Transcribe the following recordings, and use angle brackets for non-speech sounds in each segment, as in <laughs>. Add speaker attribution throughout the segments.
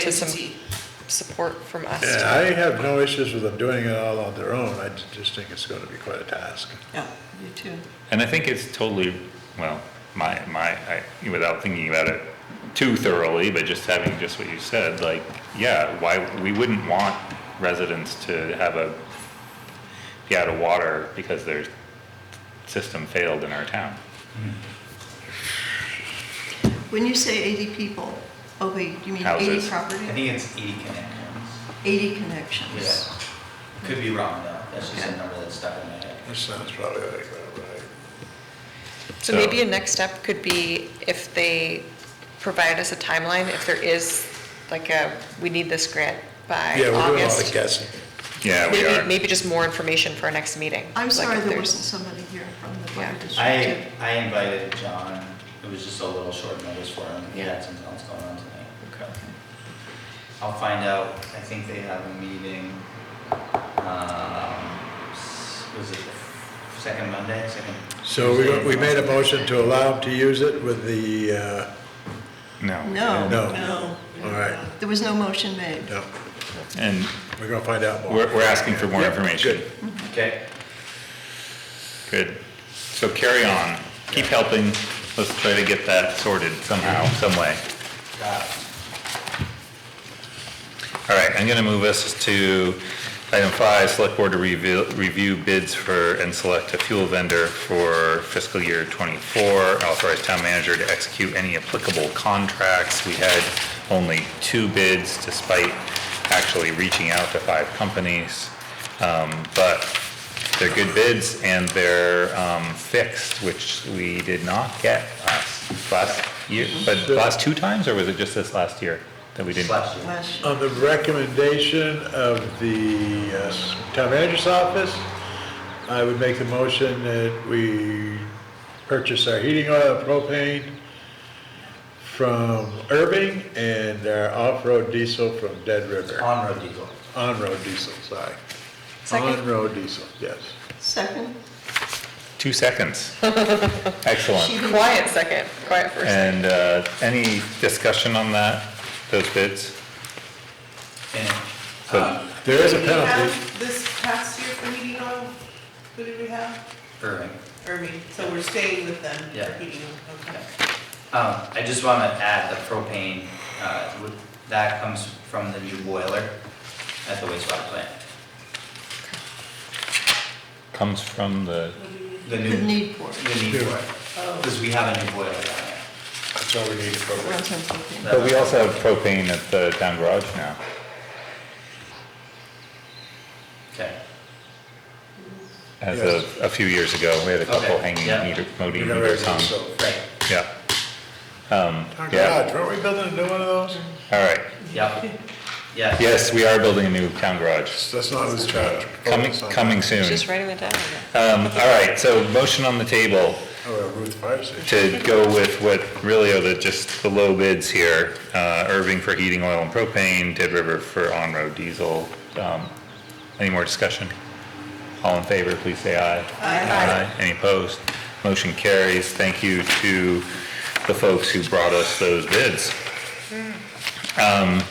Speaker 1: to some
Speaker 2: entity.
Speaker 1: support from us.
Speaker 3: Yeah, I have no issues with them doing it all on their own, I ju- just think it's gonna be quite a task.
Speaker 2: Yeah, you too.
Speaker 4: And I think it's totally, well, my, my, I, without thinking about it too thoroughly, but just having just what you said, like, yeah, why, we wouldn't want residents to have a, be out of water because their system failed in our town.
Speaker 2: When you say 80 people, oh wait, you mean 80
Speaker 4: Houses.
Speaker 5: I
Speaker 2: property?
Speaker 5: think it's 80 connections.
Speaker 2: 80 connections.
Speaker 5: Yeah. Could be wrong though. That's just
Speaker 2: Okay.
Speaker 5: a number that's stuck in my head.
Speaker 3: That sounds probably like, uh, about right.
Speaker 1: So maybe a next step could be if they provide us a timeline, if there is like a, we need this grant by
Speaker 3: Yeah, we're doing a lot of
Speaker 1: August.
Speaker 3: guessing.
Speaker 4: Yeah, we
Speaker 1: Maybe,
Speaker 4: are.
Speaker 1: maybe just more information for our next meeting.
Speaker 2: I'm
Speaker 1: Like
Speaker 2: sorry
Speaker 1: if
Speaker 2: there
Speaker 1: there's-
Speaker 2: wasn't somebody here from the fire
Speaker 1: Yeah.
Speaker 2: district.
Speaker 5: I,
Speaker 2: to-
Speaker 5: I invited John. It was just a little short notice for him. He had something else going on tonight. Okay. I'll find out. I think they have a meeting, um, s- was it the second Monday, second?
Speaker 3: So we, we made a motion to allow them to use it with the, uh,
Speaker 4: No.
Speaker 2: No.
Speaker 3: No.
Speaker 2: No.
Speaker 3: all right,
Speaker 2: There was no motion made.
Speaker 3: no,
Speaker 4: And
Speaker 3: we're gonna find out more.
Speaker 4: we're, we're asking for more
Speaker 3: Yeah,
Speaker 4: information.
Speaker 3: good.
Speaker 5: Okay.
Speaker 4: Good. So carry on. Keep helping. Let's try to get that sorted somehow, some way.
Speaker 5: Got it.
Speaker 4: All right, I'm going to move us to item five, select board to review, review bids for and select a fuel vendor for fiscal year '24. Authorize town manager to execute any applicable contracts. We had only two bids despite actually reaching out to five companies. Um, But they're good bids and they're um, fixed, which we did not get last, last year. But last two times, or was it just this last year that we didn't?
Speaker 5: Slash you.
Speaker 2: Last year.
Speaker 3: On the recommendation of the uh, town manager's office, I would make the motion that we purchase our heating oil and propane from Irving and our off-road diesel from Dead River.
Speaker 5: On-road diesel.
Speaker 3: On-road diesel, sorry.
Speaker 1: Second.
Speaker 3: On-road diesel, yes.
Speaker 2: Second?
Speaker 1: <laughs>
Speaker 4: Two seconds.
Speaker 2: She
Speaker 4: Excellent.
Speaker 2: didn't-
Speaker 1: Quiet second, quiet first.
Speaker 4: And uh, any discussion on that, those bids?
Speaker 5: And
Speaker 4: So
Speaker 3: Uh, There is a
Speaker 6: Did we
Speaker 3: penalty.
Speaker 6: have This past year for heating oil, who did we have?
Speaker 5: Irving.
Speaker 6: Irving, so we're staying with them for
Speaker 5: Yeah.
Speaker 6: heating oil, okay.
Speaker 5: Um, I just want to add the propane, uh, would- that comes from the new boiler at the wastewater plant.
Speaker 4: comes from the,
Speaker 5: The
Speaker 2: The
Speaker 5: new,
Speaker 2: need for it.
Speaker 5: the need for it, because we have a new boiler down there.
Speaker 3: That's all we need for it.
Speaker 2: Runs on propane.
Speaker 4: but we also have propane at the town garage now.
Speaker 5: Okay,
Speaker 4: As
Speaker 3: Yes.
Speaker 4: of a few years ago, we had a couple
Speaker 5: Okay,
Speaker 4: hanging
Speaker 5: yeah.
Speaker 4: meter,
Speaker 3: We
Speaker 4: modem
Speaker 3: never
Speaker 4: meters
Speaker 3: did,
Speaker 4: on.
Speaker 3: so.
Speaker 5: great,
Speaker 4: Yeah. Um,
Speaker 3: Our
Speaker 4: Yeah,
Speaker 3: garage, weren't we building a new one of those?
Speaker 4: all right.
Speaker 5: yep, yeah.
Speaker 4: Yes, we are building a new town garage.
Speaker 3: That's not Oh, his charge.
Speaker 4: Coming, coming soon.
Speaker 1: Just writing it down.
Speaker 3: Uh,
Speaker 4: Um, All right, so motion on the table.
Speaker 3: Oh, well, Ruth Fire Station.
Speaker 4: to go with what really are the, just the low bids here, uh, Irving for heating oil and propane, Dead River for on-road diesel. Um, Any more discussion? All in favor, please say aye. Aye. Any opposed? Motion carries. Thank you to the folks who brought us those bids. Um,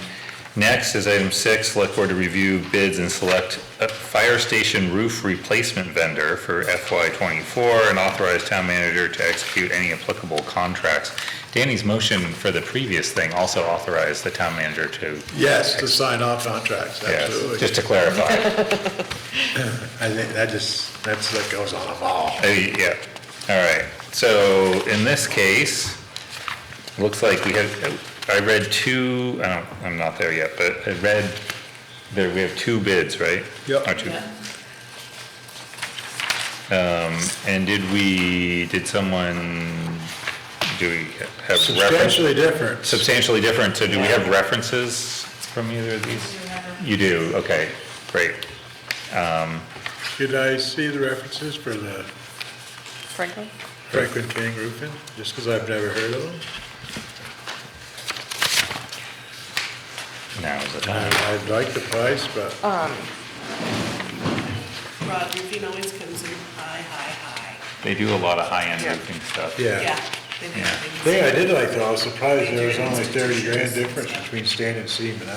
Speaker 4: Next is item six, select board to review bids and select a fire station roof replacement vendor for FY twenty-four and authorize town manager to execute any applicable contracts. Danny's motion for the previous thing also authorized the town manager to,
Speaker 3: Yes, to sign off contracts,
Speaker 4: yes, just
Speaker 3: absolutely.
Speaker 4: to clarify.
Speaker 3: I think that just, that's, that goes on a ball.
Speaker 4: Uh, Yeah, all right. So in this case, looks like we have, I read two, I don't, I'm not there yet, but I read, there, we have two bids, right?
Speaker 3: Yep.
Speaker 4: Or two,
Speaker 6: Yeah.
Speaker 4: And did we, did someone, do we have references?
Speaker 3: Substantially different.
Speaker 4: Substantially different, so do we have references from either of these? You do, okay, great.
Speaker 3: Could I see the references for the
Speaker 1: Franklin?
Speaker 3: Franklin King Roofing, just because I've never heard of them?
Speaker 4: Now is the time.
Speaker 3: I I like the price, but
Speaker 6: Rod, your phone always comes in high, high, high.
Speaker 4: They do a lot of high-end
Speaker 1: Yeah.
Speaker 4: roofing stuff.
Speaker 3: yeah,
Speaker 6: Yeah, They
Speaker 4: Yeah.
Speaker 6: didn't-
Speaker 3: Thing I did like though, I was surprised there was only thirty grand difference between stain and seam, and